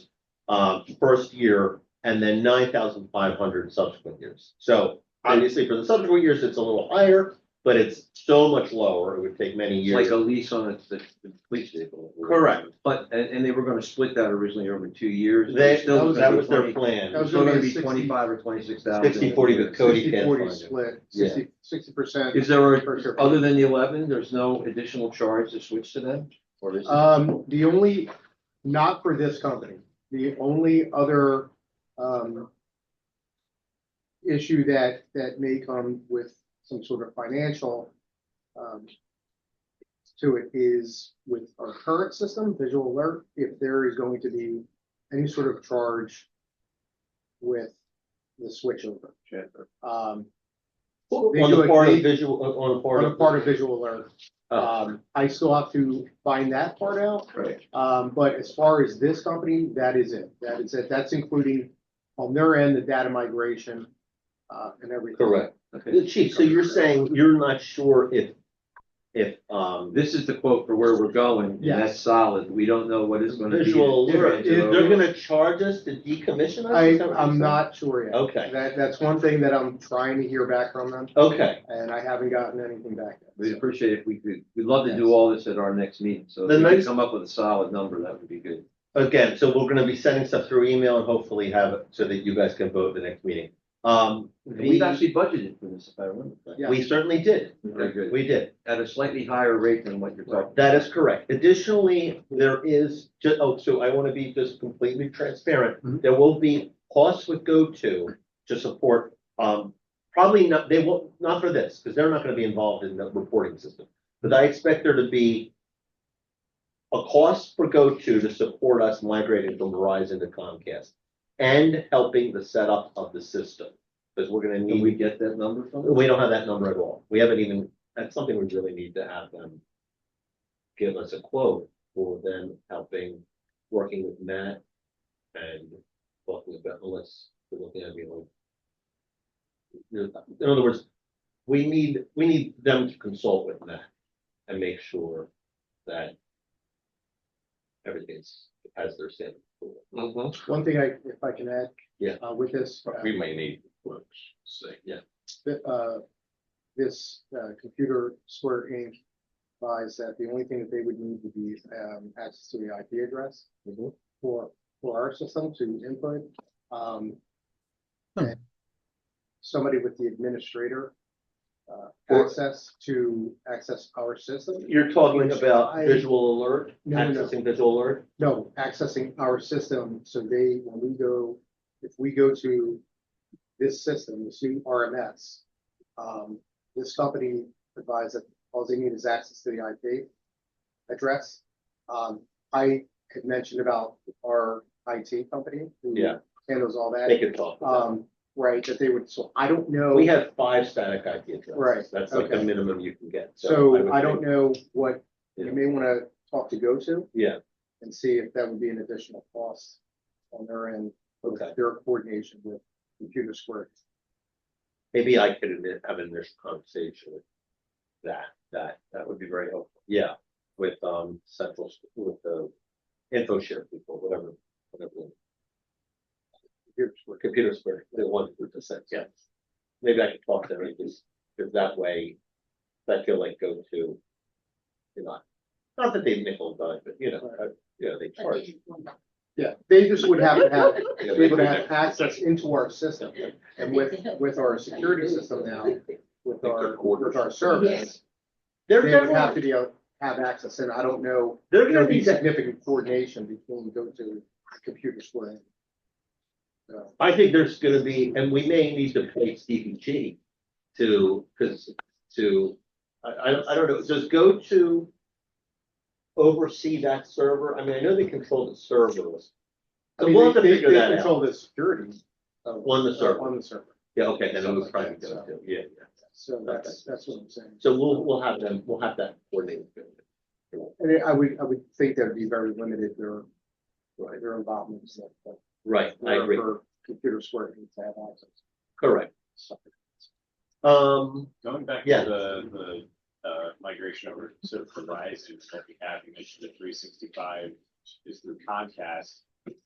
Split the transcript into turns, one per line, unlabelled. uh, first year and then nine thousand five hundred subsequent years. So obviously for the subsequent years, it's a little higher, but it's so much lower. It would take many
It's like
years.
a lease on a- the, the police vehicle.
Correct.
But, and, and they were gonna split that originally over two years.
They,
Still gonna
that
be
was their
20
plan.
That was
It's still
gonna
gonna
be
be
60
twenty-five or twenty-six thousand.
60-40 with Cody.
Sixty
can't
forty
find it.
split,
Yeah.
sixty, sixty percent.
Is there, a-
First year.
other than the eleven, there's no additional charge to switch to them? Or is
Uh,
it?
Um, the only, not for this company, the only other, um, issue that, that may come with some sort of financial, um, to it is with our current system, visual alert, if there is going to be any sort of charge with the switchover. Um,
On the part of visual, on the part
on a
of.
part of visual alert,
Oh,
um, I still have to find that part out.
Right.
Um, but as far as this company, that is it. That is it. That's including on their end, the data migration, uh, and everything.
correct.
Okay.
Chief, so you're saying you're not sure if, if, um,
This is the quote for where we're going, and
Yes.
that's solid. We don't know what it's gonna be.
visual
Yeah,
alert,
yeah.
they're gonna charge us to decommission us?
I,
Is that what you're
I'm
saying?
not sure yet.
Okay, Oh.
That, that's one thing that I'm trying to hear back from them,
okay.
and I haven't gotten anything back
We'd
yet.
appreciate if we could, we'd love to
Yes.
do all this at our next meeting, so
The
if we could
next-
come up with a solid number, that would be good.
Again, so we're gonna be sending stuff through email and hopefully have it so that you guys can vote the next meeting. Um, we,
We've actually budgeted for this, if I remember. correctly.
Yeah.
we certainly did.
Very good.
We did.
At a slightly higher rate than what you're talking.
That is correct. Additionally, there is, ju- oh, so I want to be just completely transparent.
Mhm.
There will be costs with GoTo to support, um, probably not, they won't, not for this, because they're not going to be involved in the reporting system. But I expect there to be a cost for GoTo to support us migrating from Verizon to Comcast and helping the setup of the system, because we're going to
Can
need.
we get that number from them?
We don't have that number at all. We haven't even, that's something we really need to have them give us a quote for them helping, working with Matt and talking about Melissa, to look at me like. In other words, we need, we need them to consult with Matt and make sure that everything's, has their standard. Mm-hmm.
Mhm.
One thing I, if I can add.
Yeah.
Uh, with this, uh,
We may need quotes, say, yeah.
th- uh, this, uh, computer square Inc. buys that the only thing that they would need would be, um, access to the IP address.
Mm-hmm.
for, for our system to input. Um, and somebody with the administrator, uh,
Or-
access to access our system.
You're talking
Which
about
I-
visual alert,
No, no, no.
accessing visual alert?
No, accessing our system, so they, when we go, if we go to this system, this new RMS, um, this company advised that all they need is access to the IP address. Um, I had mentioned about our IT company. who
Yeah.
Handles all
They
that,
could talk. about
um, right, that they would, so I don't
it.
know.
We have five static IP addresses.
Right,
That's like the
okay.
minimum you can get.
So
would
I don't
think-
know what, you
Yeah.
may wanna talk to go to.
Yeah.
And see if that would be an additional cost on their end. with
Okay.
Their coordination with Computer Square.
Maybe I could admit- have an initial conversation with that, that,
That would be very helpful.
yeah, with, um, central, with the info share people, whatever, whatever.
Computer Square.
Computer Square, the one who percent, yes. Maybe I could talk to them, because, because that way, I feel like go to, you know, not that they nickel and dime, but you know, uh, you know, they charge.
Yeah, they just would have to have,
you know,
they would
do
have
that.
access into our system and with, with our security system now, with our, with our service. They
They're,
would
they're,
have to be, able- have access and I don't know,
they're
there'd
gonna
be
be,
significant coordination between go to Computer Square. So.
I think there's gonna be, and we may need to pay Stevie G to, cause, to, I, I, I don't know, does go to oversee that server? I mean, I know they control the servers.
I
So
mean,
we'll
they,
have to
they-
figure
they
that out.
control the security. of- uh,
On the server.
On the server,
Yeah, okay, then it was
Something like
probably,
that,
go
so.
to, yeah, yeah.
so that's, that's what I'm saying.
So we'll, we'll have them, we'll have that coordinated.
And I would, I would think that would be very limited, their,
Right.
their involvement. in that, but
Right, I
for-
agree,
for Computer Square needs to have access.
correct. Um,
Going back
Yeah.
to the, the, uh, migration over to Verizon that we have, you mentioned the three sixty-five is through Comcast.